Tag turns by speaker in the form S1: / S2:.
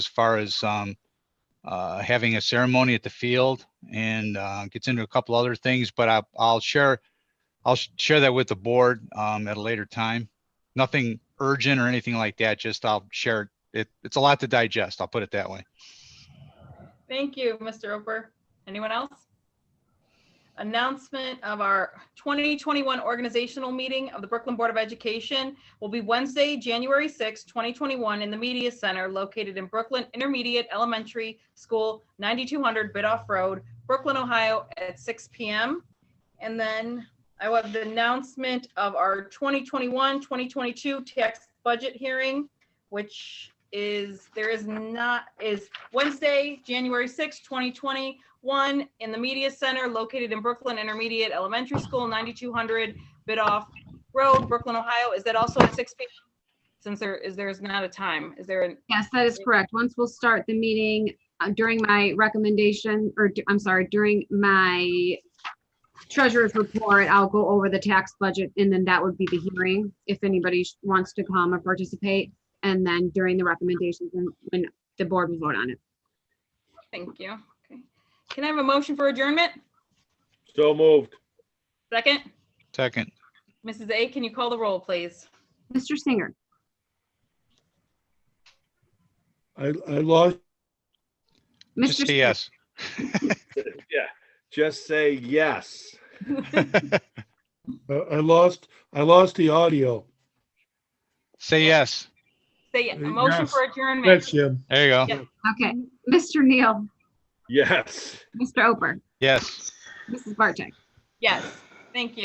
S1: as far as um, uh, having a ceremony at the field and uh, gets into a couple other things, but I, I'll share, I'll sh- share that with the board um, at a later time. Nothing urgent or anything like that, just I'll share it. It's a lot to digest. I'll put it that way.
S2: Thank you, Mr. Oper. Anyone else? Announcement of our 2021 organizational meeting of the Brooklyn Board of Education will be Wednesday, January 6, 2021, in the Media Center located in Brooklyn Intermediate Elementary School, 9200 Bidoff Road, Brooklyn, Ohio, at 6 PM. And then I will have the announcement of our 2021-2022 tax budget hearing, which is, there is not, is Wednesday, January 6, 2021, in the Media Center located in Brooklyn Intermediate Elementary School, 9200 Bidoff Road, Brooklyn, Ohio. Is that also at 6 p.m.? Since there is, there's not a time. Is there an,
S3: Yes, that is correct. Once we'll start the meeting uh, during my recommendation, or d- I'm sorry, during my treasurer's report, I'll go over the tax budget and then that would be the hearing if anybody sh- wants to come or participate. And then during the recommendations and when the board will vote on it.
S2: thank you. Okay. Can I have a motion for adjournment?
S4: So moved.
S2: Second,
S1: Second,
S2: Mrs. A, can you call the roll, please?
S3: Mr. Singer,
S4: I, I lost.
S3: Mr.
S1: just say
S3: Singer,
S1: yes.
S4: Yeah, just say yes.
S5: I uh, I lost, I lost the audio.
S1: Say yes.
S2: Say, a motion for adjournment.
S5: That's Jim.
S1: There you go.
S2: Yeah.
S3: Okay, Mr. Neal,
S4: Yes.
S3: Mr. Oper,
S1: Yes.
S3: Mrs. Barcheck.
S2: Yes, thank you.